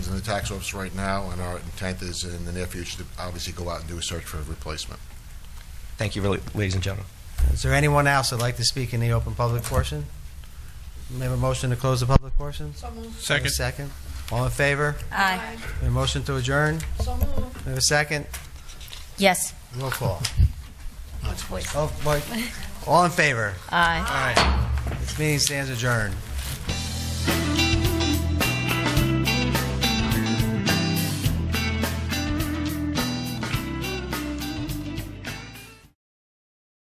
from the tax office right now, and our intent is in the near future to obviously go out and do a search for a replacement. Thank you, really, ladies and gentlemen. Is there anyone else that'd like to speak in the open public portion? May I have a motion to close the public portion? So moved. Second. Second. All in favor? Aye. May I have a motion to adjourn? May So moved. I have a second? Yes. Roll call. Voice. Oh, boy. All in favor? Aye. This meeting stands adjourned.